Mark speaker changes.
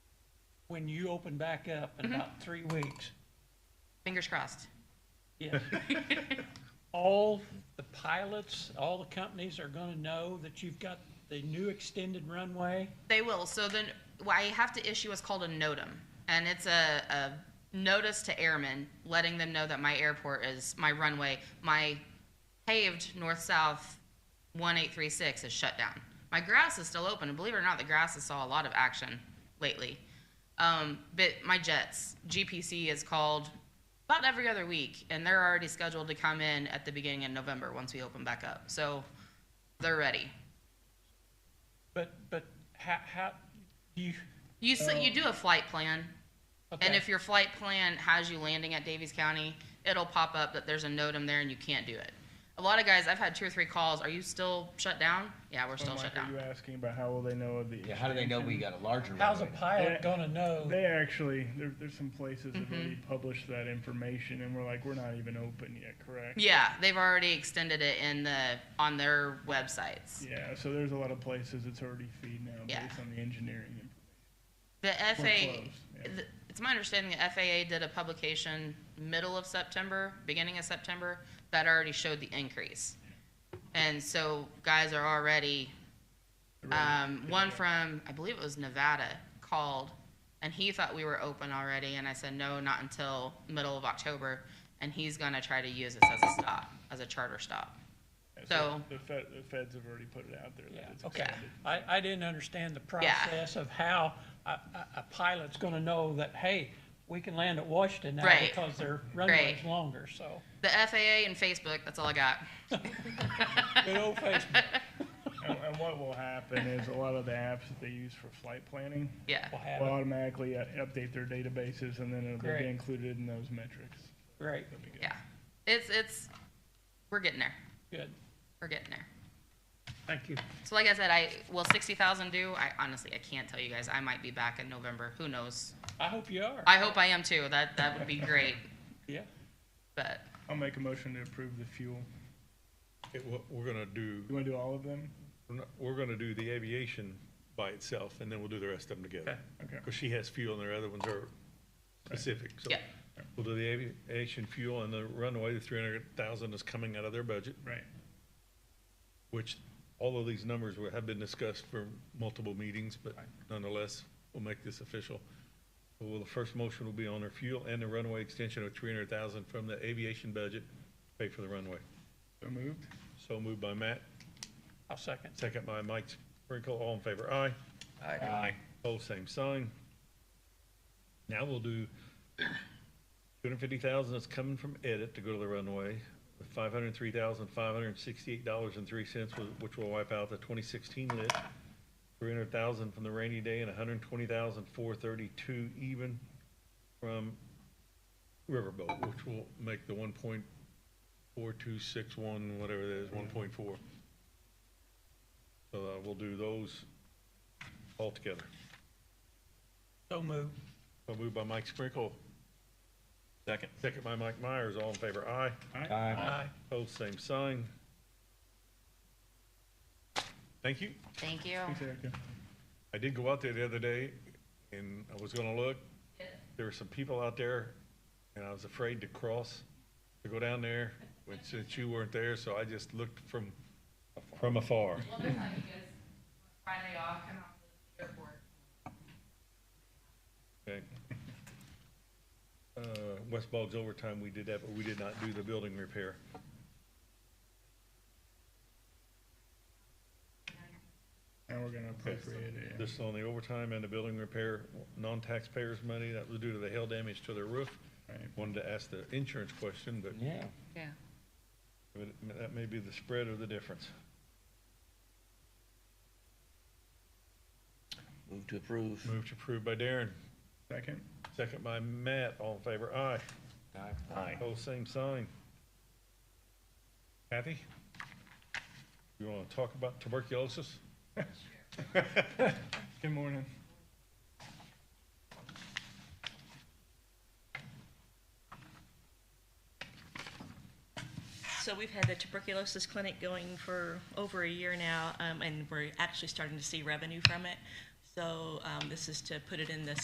Speaker 1: when you open back up
Speaker 2: Mm-hmm.
Speaker 1: in about three weeks,
Speaker 2: Fingers crossed.
Speaker 1: yeah, all the pilots, all the companies are gonna know that you've got the new extended runway.
Speaker 2: They will. So then, well, I have to issue what's called a notum, and it's a, a notice to airmen, letting them know that my airport is my runway, my paved north-south 1836 is shut down. My grass is still open, and believe it or not, the grass has saw a lot of action lately. Um, but my jets, GPC is called about every other week, and they're already scheduled to come in at the beginning of November once we open back up. So they're ready.
Speaker 1: But, but how, how, you,
Speaker 2: You s you do a flight plan, and
Speaker 1: Okay.
Speaker 2: if your flight plan has you landing at Davies County, it'll pop up that there's a notum there and you can't do it. A lot of guys, I've had two or three calls. Are you still shut down? Yeah, we're still
Speaker 3: Mike,
Speaker 2: shut
Speaker 3: Are you
Speaker 2: down.
Speaker 3: asking about how will they know of the?
Speaker 4: Yeah, how do they know we got a larger
Speaker 1: how's a
Speaker 4: runway?
Speaker 1: pilot gonna know?
Speaker 3: They actually, there, there's some places that already
Speaker 2: Mm-hmm.
Speaker 3: publish that information, and we're like, we're not even open yet, correct?
Speaker 2: Yeah, they've already extended it in the on their websites.
Speaker 3: Yeah, so there's a lot of places it's already feed now
Speaker 2: Yeah.
Speaker 3: based on the engineering. and-
Speaker 2: The FAA,
Speaker 3: closed, yeah.
Speaker 2: th- it's my understanding that FAA did a publication middle of September, beginning of September, that already showed the increase. And so guys are already Um, one from, I believe it was Nevada, called, and he thought we were open already, and I said, no, not until middle of October, and he's gonna try to use this as a stop, as a charter stop.
Speaker 3: Yeah,
Speaker 2: So-
Speaker 3: The fed, the feds have already put it out there
Speaker 1: Yeah,
Speaker 3: that it's
Speaker 1: okay.
Speaker 3: extended.
Speaker 1: I, I didn't understand the process of how a, a, a pilot's gonna know that, hey, we can land at Washington now
Speaker 2: Right.
Speaker 1: because their runway's
Speaker 2: Right.
Speaker 1: longer, so.
Speaker 2: The FAA and Facebook, that's all I got.
Speaker 1: Good old Facebook
Speaker 3: And, and what will happen is a lot of the apps that they use for flight planning
Speaker 2: Yeah,
Speaker 1: will
Speaker 3: will
Speaker 1: have it,
Speaker 3: automatically uh, update their databases, and then it'll
Speaker 1: Great.
Speaker 3: be included in those metrics.
Speaker 1: great,
Speaker 3: That'd be good.
Speaker 2: yeah. It's, it's, we're getting there.
Speaker 1: good,
Speaker 2: We're getting there.
Speaker 1: thank you.
Speaker 2: So like I said, I, will sixty thousand do? I honestly, I can't tell you guys. I might be back in November. Who knows?
Speaker 1: I hope you are,
Speaker 2: I hope I am too. That, that would be great,
Speaker 1: yeah.
Speaker 2: but
Speaker 3: I'll make a motion to approve the fuel.
Speaker 5: It- we're- We're gonna do,
Speaker 3: You wanna do all of them?
Speaker 5: we're not- we're gonna do the aviation by itself, and then we'll do the rest of them together.
Speaker 3: Okay.
Speaker 5: Because she has fuel and their other ones are specific, so.
Speaker 2: Yeah.
Speaker 5: We'll do the aviation fuel and the runway, the three hundred thousand is coming out of their budget,
Speaker 3: Right.
Speaker 5: which all of these numbers were, have been discussed for multiple meetings, but nonetheless, we'll make this official. Well, the first motion will be on our fuel and the runway extension of three hundred thousand from the aviation budget, to pay for the runway.
Speaker 3: So moved?
Speaker 5: So moved by Matt,
Speaker 1: I'll second.
Speaker 5: Second by Mike Sprinkle, all in favor, aye. Aye. Both same sign. Now we'll do two hundred fifty thousand that's coming from edit to go to the runway, with five hundred three thousand, five hundred sixty-eight dollars and three cents, which will wipe out the twenty sixteen list. Three hundred thousand from the rainy day and a hundred and twenty thousand, four thirty-two even from Riverboat, which will make the one point four two six one, whatever that is, one point four. So uh, we'll do those all together.
Speaker 1: So moved.
Speaker 5: So moved by Mike Sprinkle. Second. Second by Mike Myers, all in favor, aye.
Speaker 4: Aye.
Speaker 1: Aye.
Speaker 5: Hold same sign. Thank you.
Speaker 2: thank you.
Speaker 3: Thanks, Erica.
Speaker 5: I did go out there the other day and I was gonna look. There were some people out there and I was afraid to cross, to go down there, which, since you weren't there, so I just looked from, from afar.
Speaker 2: Well, next time you guys, Friday off, come out to the airport.
Speaker 5: Okay. Uh, West Boggs overtime, we did that, but we did not do the building repair.
Speaker 3: And we're gonna appropriate it. yeah.
Speaker 5: This is on the overtime and the building repair, non-taxpayers money, that was due to the hail damage to their roof.
Speaker 3: Right.
Speaker 5: Wanted to ask the insurance question, but
Speaker 4: Yeah.
Speaker 2: Yeah.
Speaker 5: but that may be the spread or the difference.
Speaker 4: Move to approve.
Speaker 5: Move to approve by Darren,
Speaker 3: Second?
Speaker 5: second by Matt, all in favor, aye.
Speaker 4: Aye.
Speaker 5: Hold same sign. Kathy? You wanna talk about tuberculosis?
Speaker 3: Good morning.
Speaker 6: So we've had the tuberculosis clinic going for over a year now, um, and we're actually starting to see revenue from it. So um, this is to put it in the